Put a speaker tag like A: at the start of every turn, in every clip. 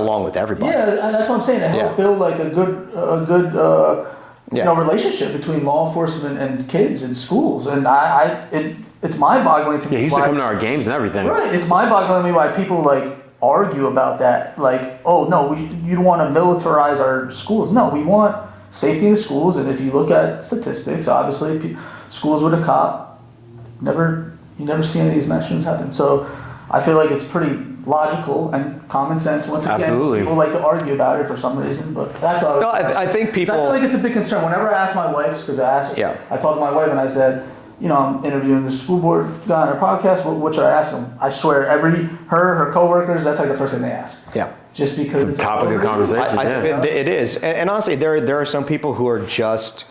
A: along with everybody.
B: Yeah, and that's what I'm saying. To help
A: Yeah.
B: build like a good, a good, uh,
A: Yeah.
B: you know, relationship between law enforcement and kids in schools. And I, I it, it's mind-boggling to me.
C: Yeah, he used
B: why,
C: to come to our games and everything.
B: Right, it's mind-boggling to me why people like argue about that. Like, oh no, we, you don't want to militarize our schools. No, we want safety in schools. And if you look at statistics, obviously, pe- schools with a cop never, you never see any of these mass shootings happen. So, I feel like it's pretty logical and common sense. Once again,
C: Absolutely.
B: people like to argue about it for some reason, but that's what I was.
A: No, I, I think
B: 'Cause
A: people.
B: I feel like it's a big concern. Whenever I ask my wife, because I asked,
A: Yeah.
B: I talked to my wife and I said, you know, I'm interviewing the school board guy on our podcast. What, what should I ask him? I swear, every her, her coworkers, that's like the first thing they ask.
A: Yeah.
B: Just because it's,
C: topic of
B: over.
C: conversation.
A: I, I,
C: Yeah.
A: it, it is, and, and honestly, there there are some people who are just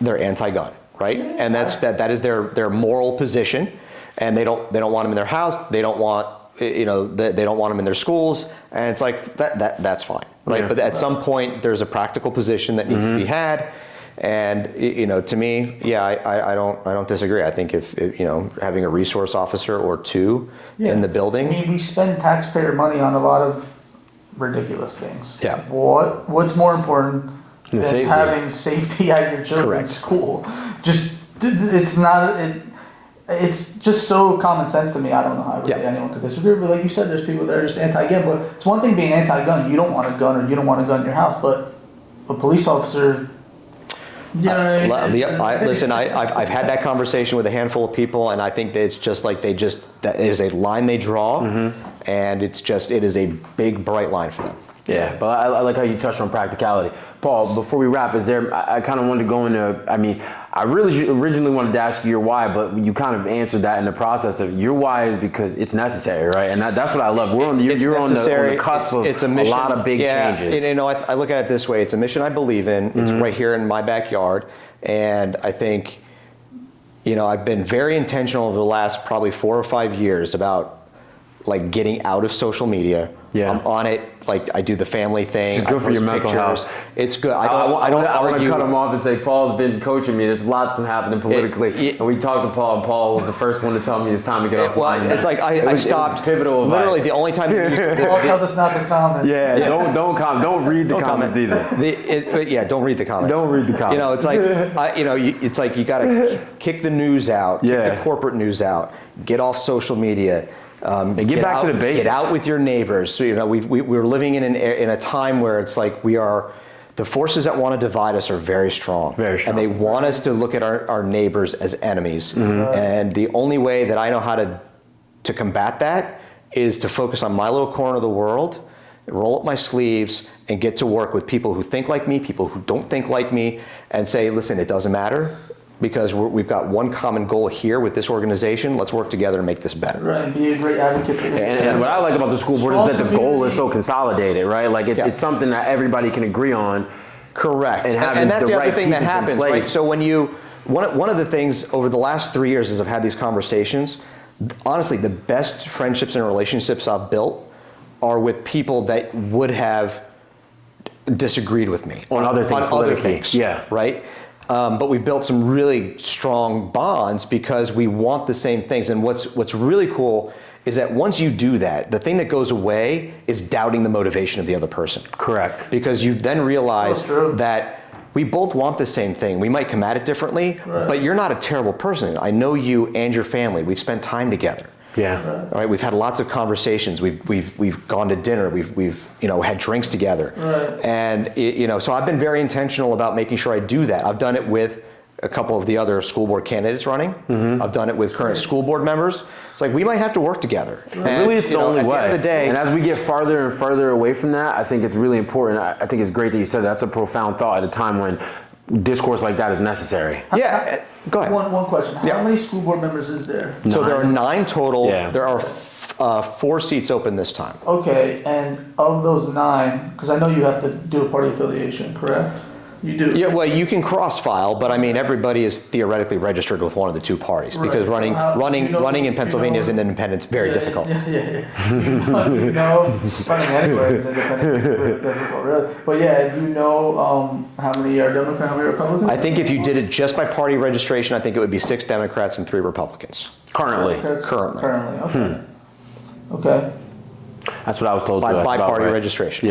A: they're anti-gun, right? And that's that that is their their moral position, and they don't they don't want them in their house. They don't want you know they, they don't want them in their schools, and it's like that that that's fine, right?
C: Yeah. Mm-hmm.
A: But at some point, there's a practical position that needs to be had. And y- you know, to me, yeah, I, I, I don't, I don't disagree. I think if, if, you know, having a resource officer or two
B: Yeah.
A: in the building,
B: I mean, we spend taxpayer money on a lot of ridiculous things.
A: Yeah.
B: What What's more important than
C: safety.
B: having safety at your children's
A: Correct.
B: school? Just it's not it. It's just so common sense to me. I don't know how really
A: Yeah.
B: anyone could disagree. But like you said, there's people that are just anti-gun. But it's one thing being anti-gun. You don't want a gun, or you don't want a gun in your house. But a police officer. You know what I mean?
A: Well, the- I- listen, I,
B: It's-
A: I've, I've had that conversation with a handful of people, and I think that it's just like they just, that it is a line they draw, and it's just, it is a big, bright line for them.
C: Yeah, but I, I like how you touched on practicality, Paul. Before we wrap, is there? I, I kind of wanted to go into. I mean, I really ju- originally wanted to ask you your why, but you kind of answered that in the process of your why is because it's necessary, right? And that, that's what I love. We're on the,
A: It's
C: you're on the, on
A: necessary.
C: the cusp of
A: a mission.
C: lot of big
A: Yeah,
C: changes. Mm-hmm.
A: and, you know, I, I look at it this way: it's a mission I believe in. It's right here in my backyard, and I think, you know, I've been very intentional over the last probably four or five years about like getting out of social media.
C: Yeah.
A: I'm on it. Like I do the family thing.
C: It's good
A: I
C: for your
A: post
C: mental
A: pictures.
C: health.
A: It's good. I
C: I,
A: don't. I, don't
C: want to
A: argue.
C: cut him off and say Paul's been coaching me. There's a lot been happening politically,
A: it-
C: and we talked to Paul, and Paul was the first one to tell me it's time to get off. the
A: Well,
C: line.
A: it's like
C: It
A: I, I
C: was- it was
A: stopped.
C: Pivotal. advice.
A: Literally, the only time. you use-
B: Paul tells us not to comment.
C: Yeah, don't don't com- don't read the comments
A: comment.
C: either.
A: The- it- but yeah, don't read the comments.
C: Don't read the
A: You know, it's like I, you know, you, it's like you got to kick the news out,
C: Yeah.
A: kick the corporate news out, get off social media, um,
C: And get back
A: out,
C: to the basics.
A: Get out with your neighbors. So, you know, we, we we're living in an e- in a time where it's like we are. The forces that want to divide us are very strong.
C: Very
A: And
C: strong.
A: they want us to look at our, our neighbors as enemies. And the only way that I know how to to combat that is to focus on my little corner of the world, roll up my sleeves, and get to work with people who think like me, people who don't think like me, and say, listen, it doesn't matter because we're, we've got one common goal here with this organization. Let's work together and make this better.
B: Right, and be a great advocate for your
C: And, and what I like about the school board is that the goal is so consolidated, right? Like it,
A: Yeah.
C: it's something that everybody can agree on.
A: Correct.
C: And
A: And,
C: having
A: and that's
C: the
A: the,
C: right
A: other thing that
C: pieces in
A: happens, right?
C: place.
A: So when you, one, of- one of the things over the last three years as I've had these conversations, honestly, the best friendships and relationships I've built are with people that would have disagreed with me
C: On other things
A: on other
C: politically,
A: things,
C: yeah.
A: right? Um, but we built some really strong bonds because we want the same things. And what's what's really cool is that once you do that, the thing that goes away is doubting the motivation of the other person
C: Correct.
A: because you then realize
B: So true.
A: that we both want the same thing. We might come at it differently, but you're not a terrible person. I know you and your family. We've spent time together.
C: Yeah.
A: All right, we've had lots of conversations. We've we've we've gone to dinner. We've we've you know had drinks together.
B: Right.
A: And it, you know, so I've been very intentional about making sure I do that. I've done it with a couple of the other school board candidates running.
C: Mm-hmm.
A: I've done it with current school board members. It's like we might have to work together. And,
C: really, it's
A: you
C: the
A: know,
C: only
A: at
C: way.
A: the end of the day,
C: and as we get farther and farther away from that, I think it's really important. I, I think it's great that you said that's a profound thought at a time when discourse like that is necessary.
A: yeah. uh, Go ahead.
B: One, one question. How
A: Yeah.
B: many school board members is there?
A: So there are nine total.
C: Yeah.
A: There are f- uh, four seats open this time.
B: Okay, and of those nine, because I know you have to do a party affiliation, correct? You do.
A: Yeah, well, you can cross file, but I mean, everybody is theoretically registered with one of the two parties because
B: Right, so
A: running,
B: how-
A: running,
B: you know-
A: running in
B: you know-
A: Pennsylvania is an independent. It's very
B: Yeah,
A: difficult.
B: Yeah, yeah, yeah. you know, running anywhere is independent. it's really difficult, really. But yeah, do you know um, how many are Democrat, how many are Republican?
A: I think if you did it just by party registration, I think it would be six Democrats and three Republicans.
C: Currently.
B: Democrats?
A: currently.
B: Currently, okay. Okay.
C: That's what I was told.
A: by,
C: too. That's
A: by
C: about
A: party
C: right.
A: registration.